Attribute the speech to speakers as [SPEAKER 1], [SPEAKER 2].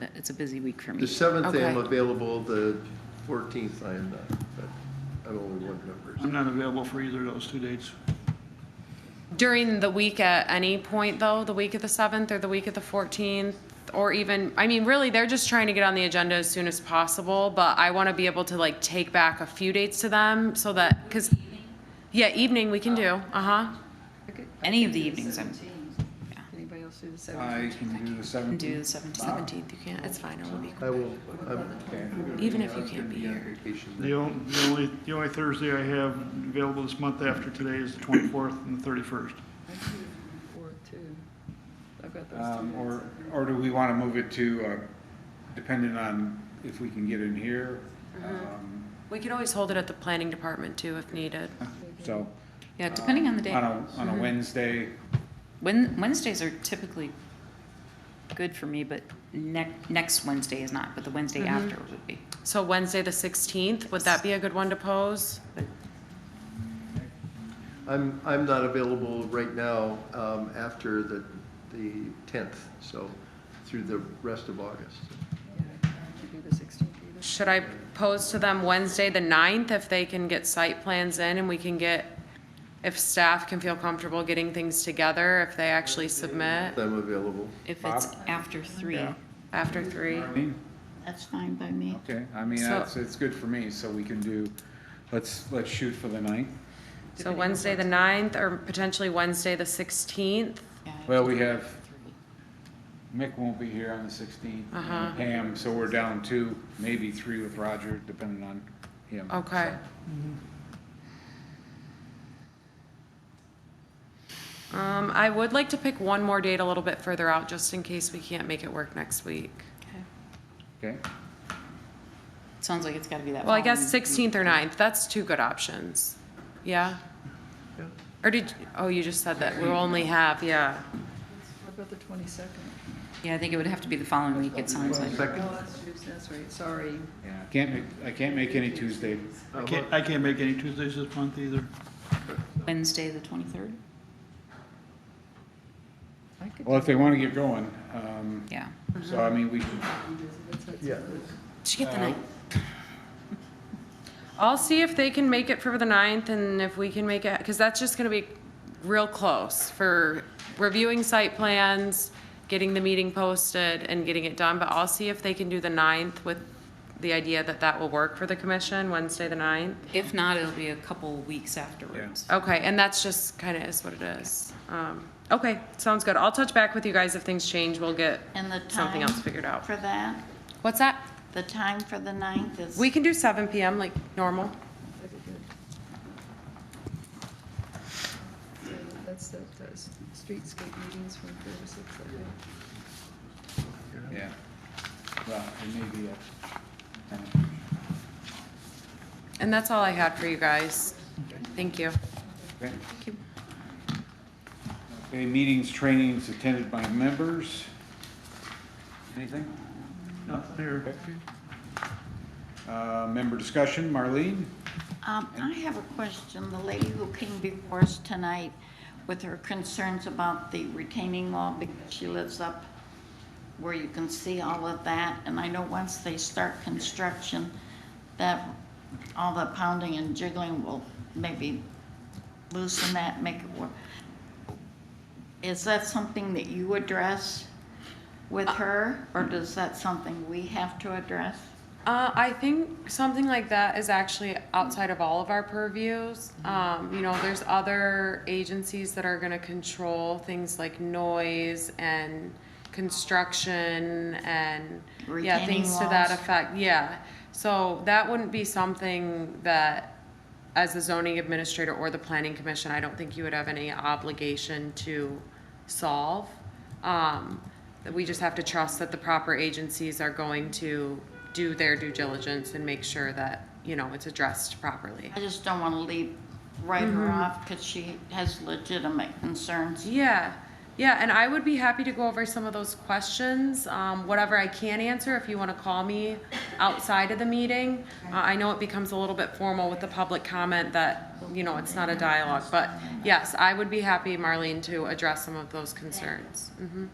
[SPEAKER 1] That- It's a busy week for me.
[SPEAKER 2] The seventh I am
[SPEAKER 3] Okay.
[SPEAKER 2] available, the fourteenth I am not, but I'm only one member.
[SPEAKER 4] I'm not available for either of those two dates.
[SPEAKER 3] During the week at any point, though, the week of the 7th or the week of the 14th, or even, I mean, really, they're just trying to get on the agenda as soon as possible, but I want to be able to like take back a few dates to them so that, because, yeah, evening we can do, uh-huh.
[SPEAKER 1] Any of the evenings I'm,
[SPEAKER 5] Anybody else do the seventh?
[SPEAKER 6] I can do the
[SPEAKER 1] can do
[SPEAKER 6] seventeenth.
[SPEAKER 1] the seventeenth.
[SPEAKER 3] 17th, you can't, it's fine, I will be,
[SPEAKER 2] I will, I'm.
[SPEAKER 3] even if you can't be here.
[SPEAKER 4] The on- the only, the only Thursday I have available this month after today is the 24th and the 31st.
[SPEAKER 5] Four, two. I've got those two.
[SPEAKER 6] Um, or, or do we want to move it to, uh, depending on if we can get in here?
[SPEAKER 3] Mm-hmm.
[SPEAKER 6] Um,
[SPEAKER 3] We could always hold it at the planning department too if needed.
[SPEAKER 6] So,
[SPEAKER 1] Yeah, depending on the
[SPEAKER 6] on
[SPEAKER 1] day.
[SPEAKER 6] a, on
[SPEAKER 3] Mm-hmm.
[SPEAKER 6] a Wednesday,
[SPEAKER 1] Wen- Wednesdays are typically good for me, but next, next Wednesday is not, but the Wednesday
[SPEAKER 7] Mm-hmm.
[SPEAKER 1] after would be.
[SPEAKER 3] So Wednesday, the 16th, would that be a good one to pose?
[SPEAKER 2] I'm, I'm not available right now, um, after the, the tenth, so through the rest of August.
[SPEAKER 5] Could do the sixteenth either.
[SPEAKER 3] Should I pose to them Wednesday, the 9th, if they can get site plans in and we can get, if staff can feel comfortable getting things together, if they actually submit
[SPEAKER 2] I'm available.
[SPEAKER 1] If it's
[SPEAKER 6] Bob?
[SPEAKER 1] after three,
[SPEAKER 6] Yeah.
[SPEAKER 3] after three?
[SPEAKER 6] I mean,
[SPEAKER 7] That's fine by me.
[SPEAKER 6] okay, I mean,
[SPEAKER 3] So-
[SPEAKER 6] that's, it's good for me, so we can do, let's, let's shoot for the ninth.
[SPEAKER 3] So Wednesday, the 9th, or potentially Wednesday, the 16th?
[SPEAKER 1] yeah, I
[SPEAKER 6] Well,
[SPEAKER 1] can
[SPEAKER 6] we
[SPEAKER 1] do
[SPEAKER 6] have-
[SPEAKER 1] three.
[SPEAKER 6] Mick won't be here on the sixteenth,
[SPEAKER 3] Uh-huh.
[SPEAKER 6] Pam, so we're down two, maybe three with Roger, depending on him.
[SPEAKER 3] Okay. Um, I would like to pick one more date a little bit further out, just in case we can't make it work next week.
[SPEAKER 1] Okay.
[SPEAKER 6] Okay,
[SPEAKER 1] Sounds like it's gotta be that.
[SPEAKER 3] Well, I guess
[SPEAKER 1] following-
[SPEAKER 3] sixteenth or 9th. that's two good options. Yeah?
[SPEAKER 2] Yeah.
[SPEAKER 3] Or did, oh, you just said that we only have, yeah.
[SPEAKER 5] What about the twenty-second?
[SPEAKER 1] Yeah, I think it would have to be the following week, it sounds like.
[SPEAKER 2] Second,
[SPEAKER 5] Oh, that's Tuesday, that's right, sorry.
[SPEAKER 6] yeah, I can't make, I can't make any Tuesday.
[SPEAKER 4] I can't, I can't make any Tuesdays this month either.
[SPEAKER 1] Wednesday, the twenty-third?
[SPEAKER 5] I could,
[SPEAKER 6] Well, if they want to get going, um,
[SPEAKER 1] Yeah.
[SPEAKER 6] so I mean, we can
[SPEAKER 2] Uh, yeah,
[SPEAKER 1] Did you get the
[SPEAKER 6] Uh,
[SPEAKER 1] night?
[SPEAKER 3] I'll see if they can make it for the 9th, and if we can make it, because that's just gonna be real close for reviewing site plans, getting the meeting posted and getting it done, but I'll see if they can do the 9th with the idea that that will work for the commission, Wednesday, the 9th.
[SPEAKER 1] If not, it'll be a couple weeks afterwards.
[SPEAKER 3] Okay, and that's just kind of is what it is. Um, okay, sounds good. I'll touch back with you guys if things change. We'll get
[SPEAKER 7] And the
[SPEAKER 3] something
[SPEAKER 7] time
[SPEAKER 3] else figured out.
[SPEAKER 7] for that,
[SPEAKER 3] What's that?
[SPEAKER 7] the time for the ninth is.
[SPEAKER 3] We can do seven PM like normal.
[SPEAKER 5] that'd be good. So That's that, uh, s- streetscape meetings from four to six, I think.
[SPEAKER 6] Yeah. Well, it may be a,
[SPEAKER 3] And that's all I had for you guys. Thank you.
[SPEAKER 6] okay.
[SPEAKER 3] you.
[SPEAKER 6] Okay, meetings, trainings attended by members. Anything?
[SPEAKER 4] Not there.
[SPEAKER 6] Uh, member discussion, Marlene?
[SPEAKER 7] Um, I have a question. The lady who came before us tonight with her concerns about the retaining wall because she lives up where you can see all of that. And I know once they start construction, that all the pounding and jiggling will maybe loosen that, make it work. Is that something that you address with her, or does that something we have to address?
[SPEAKER 3] Uh, I think something like that is actually outside of all of our purviews. Um, you know, there's other agencies that are gonna control things like noise and construction and, yeah,
[SPEAKER 7] Retaining
[SPEAKER 3] things to that
[SPEAKER 7] walls.
[SPEAKER 3] effect, yeah. So that wouldn't be something that, as the zoning administrator or the planning commission, I don't think you would have any obligation to solve. Um, that we just have to trust that the proper agencies are going to do their due diligence and make sure that, you know, it's addressed properly.
[SPEAKER 7] I just don't want to leave, write her off because she has legitimate concerns.
[SPEAKER 3] Yeah, yeah, and I would be happy to go over some of those questions, um, whatever I can answer, if you wanna call me outside of the meeting. Uh, I know it becomes a little bit formal with the public comment that, you know, it's not a dialogue, but yes, I would be happy, Marlene, to address some of those concerns. Mhm.